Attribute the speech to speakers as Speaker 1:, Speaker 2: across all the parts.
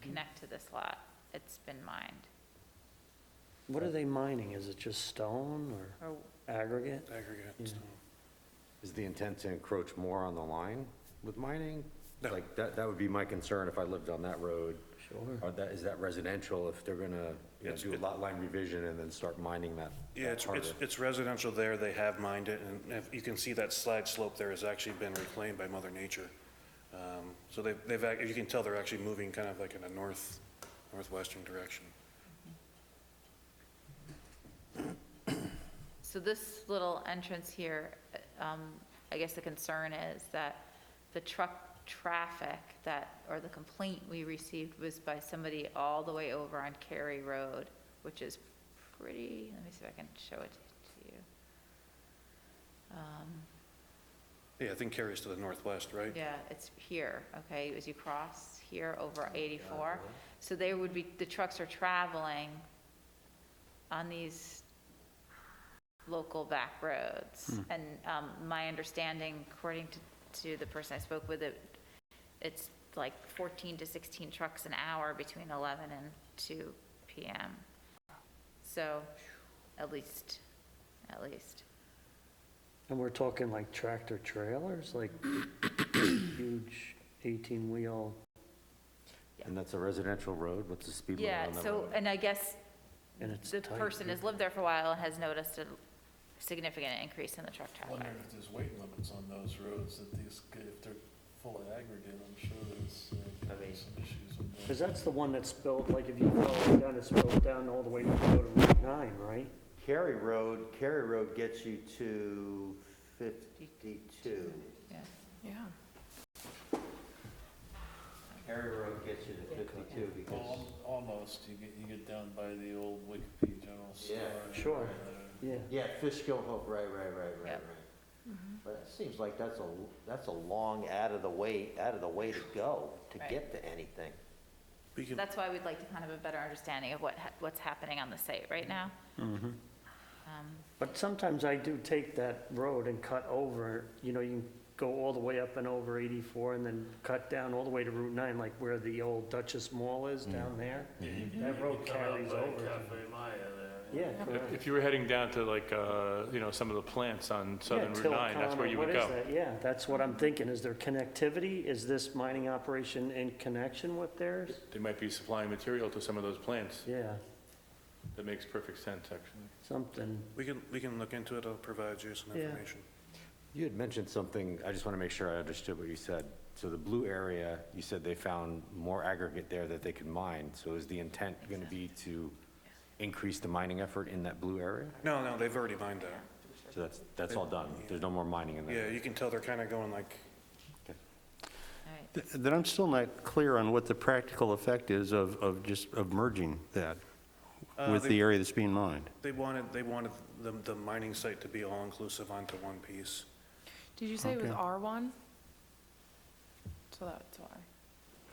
Speaker 1: connect to this lot. It's been mined,
Speaker 2: What are they mining? Is it just stone or
Speaker 1: or
Speaker 2: aggregate?
Speaker 3: Aggregate,
Speaker 2: Yeah.
Speaker 3: so,
Speaker 4: Is the intent to encroach more on the line with mining?
Speaker 3: No.
Speaker 4: Like, that, that would be my concern if I lived on that road.
Speaker 2: Sure.
Speaker 4: Or that, is that residential if they're gonna, you know,
Speaker 3: Mm-hmm. It's-
Speaker 4: do a lot line revision and then start mining that?
Speaker 3: Yeah,
Speaker 4: that
Speaker 3: it's,
Speaker 4: part of
Speaker 3: it's-
Speaker 4: it?
Speaker 3: it's residential there, they have mined it, and if- you can see that slide slope there has actually been reclaimed by Mother Nature. Um, So they've, they've, ac- you can tell they're actually moving kind of like in a north, northwestern direction.
Speaker 1: So this little entrance here, um, I guess the concern is that the truck traffic that, or the complaint we received was by somebody all the way over on Cary Road, which is pretty, let me see if I can show it to you. Um,
Speaker 3: Yeah, I think Cary's to the northwest, right?
Speaker 1: yeah, it's here, okay, as you cross here
Speaker 4: Oh,
Speaker 1: over 84. So they would be, the trucks are traveling on these local back roads.
Speaker 4: Hmm.
Speaker 1: And um, my understanding, according to, to the person I spoke with, it, it's like 14 to 16 trucks an hour between 11 and 2 PM. So, at least, at least.
Speaker 2: And we're talking like tractor trailers, like huge 18-wheel?
Speaker 4: And that's a residential road? What's the speed limit
Speaker 1: Yeah,
Speaker 4: on that
Speaker 1: so,
Speaker 4: road?
Speaker 1: and I guess
Speaker 2: And it's
Speaker 1: the
Speaker 2: tight,
Speaker 1: person has lived there for a while and has noticed a significant increase in the truck traffic.
Speaker 5: Wondering if there's weight limits on those roads, that these, g- if they're full of aggregate, I'm sure there's uh, some issues with
Speaker 2: Because
Speaker 5: that.
Speaker 2: that's the one that's built, like if you go down, it's built down all the way to go to Route 9, right?
Speaker 6: Cary Road, Cary Road gets you to 52.
Speaker 1: Yeah.
Speaker 6: Cary Road gets you to 52 because,
Speaker 5: Al- Almost, you get, you get down by the old Wikipedia General Store.
Speaker 6: Yeah.
Speaker 5: and
Speaker 2: Sure.
Speaker 5: there.
Speaker 2: Yeah.
Speaker 6: yeah, Fishkill Hope, right, right, right, right, right.
Speaker 1: Yep.
Speaker 7: Mm-hmm.
Speaker 6: But it seems like that's a, that's a long out of the way, out of the way to go to
Speaker 1: Right.
Speaker 6: get to anything.
Speaker 3: We can-
Speaker 1: That's why we'd like to kind of have a better understanding of what, ha- what's happening on the site right now. Um,
Speaker 2: But sometimes I do take that road and cut over, you know, you can go all the way up and over 84 and then cut down all the way to Route 9, like where the old Duchess Mall is down there. That road carries over. Yeah,
Speaker 8: If-
Speaker 2: correct.
Speaker 8: If you were heading down to like, uh, you know, some of the plants on Southern
Speaker 2: Yeah,
Speaker 8: Route 9, that's
Speaker 2: Tilcon,
Speaker 8: where you would
Speaker 2: What
Speaker 8: go.
Speaker 2: is that? Yeah, that's what I'm thinking. Is there connectivity? Is this mining operation in connection with theirs?
Speaker 8: They might be supplying material to some of those plants.
Speaker 2: Yeah,
Speaker 8: That makes perfect sense, actually.
Speaker 2: something.
Speaker 3: We can, we can look into it, I'll provide you some
Speaker 2: Yeah.
Speaker 3: information.
Speaker 4: You had mentioned something, I just want to make sure I understood what you said. So the blue area, you said they found more aggregate there that they could mine. So is the intent going to be to increase the mining effort in that blue area?
Speaker 3: No, no, they've already mined there.
Speaker 4: So that's, that's all done? There's no more mining in that?
Speaker 3: Yeah, you can tell they're kind of going like,
Speaker 1: all right.
Speaker 9: Th- Then I'm still not clear on what the practical effect is of, of just, of merging that with
Speaker 3: uh, they-
Speaker 9: the area that's being mined.
Speaker 3: they wanted, they wanted the, the mining site to be all-inclusive onto one piece.
Speaker 7: Did you say it was
Speaker 9: Okay.
Speaker 7: R1? So that's why.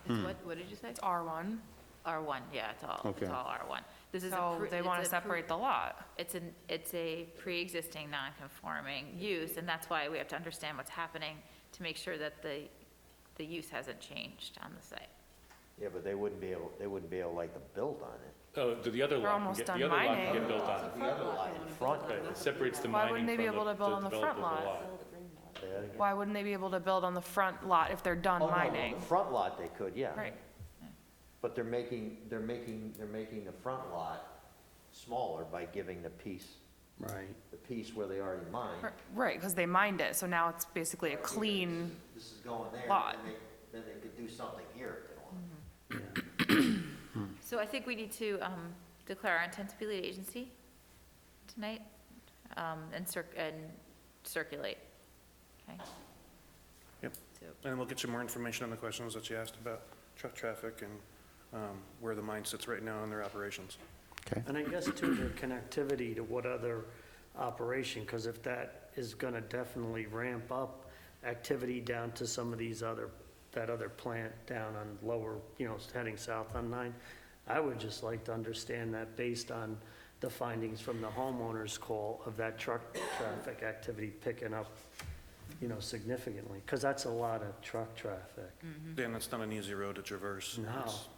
Speaker 1: It's What, what did you say?
Speaker 7: It's R1,
Speaker 1: R1, yeah, it's all,
Speaker 9: Okay.
Speaker 1: it's all R1. This is. a
Speaker 7: so
Speaker 1: pre-
Speaker 7: they
Speaker 1: it's
Speaker 7: want
Speaker 1: a
Speaker 7: to
Speaker 1: pre-
Speaker 7: separate the lot.
Speaker 1: It's an, it's a pre-existing non-conforming use, and that's why we have to understand what's happening to make sure that the, the use hasn't changed on the site.
Speaker 6: Yeah, but they wouldn't be able, they wouldn't be able like to build on it.
Speaker 8: Oh, the- the other
Speaker 7: They're
Speaker 8: lot can
Speaker 7: almost
Speaker 8: get,
Speaker 7: done
Speaker 8: the other lot can
Speaker 7: mining.
Speaker 8: get built on.
Speaker 6: The other lot in front,
Speaker 8: Right, It separates the
Speaker 7: Why
Speaker 8: mining from
Speaker 7: wouldn't they be able
Speaker 8: the
Speaker 7: to build on the front
Speaker 8: developable
Speaker 7: lot?
Speaker 8: lot.
Speaker 6: yeah.
Speaker 7: Why wouldn't they be able to build on the front lot if they're done
Speaker 6: Oh, no, on
Speaker 7: mining?
Speaker 6: The front lot they could, yeah.
Speaker 7: Right.
Speaker 6: But they're making, they're making, they're making the front lot smaller by giving the piece,
Speaker 2: Right.
Speaker 6: the piece where they already mined.
Speaker 7: Right, because they mined it, so now it's basically a clean,
Speaker 6: This is going there,
Speaker 7: Lot.
Speaker 6: then they, then they could do something here if they want.
Speaker 1: So I think we need to um, declare our intent to be lead agency tonight um, and cir, and circulate. Okay?
Speaker 3: Yep.
Speaker 1: So,
Speaker 3: And we'll get you more information on the questions that you asked about truck traffic and um, where the mine sits right now in their operations.
Speaker 2: And I guess too, the connectivity to what other operation, because if that is going to definitely ramp up activity down to some of these other, that other plant down on lower, you know, heading south on nine, I would just like to understand that based on the findings from the homeowner's call of that truck traffic activity picking up, you know, significantly, because that's a lot of truck traffic.
Speaker 3: Dan, that's not an easy road to traverse.
Speaker 2: No.
Speaker 3: It's-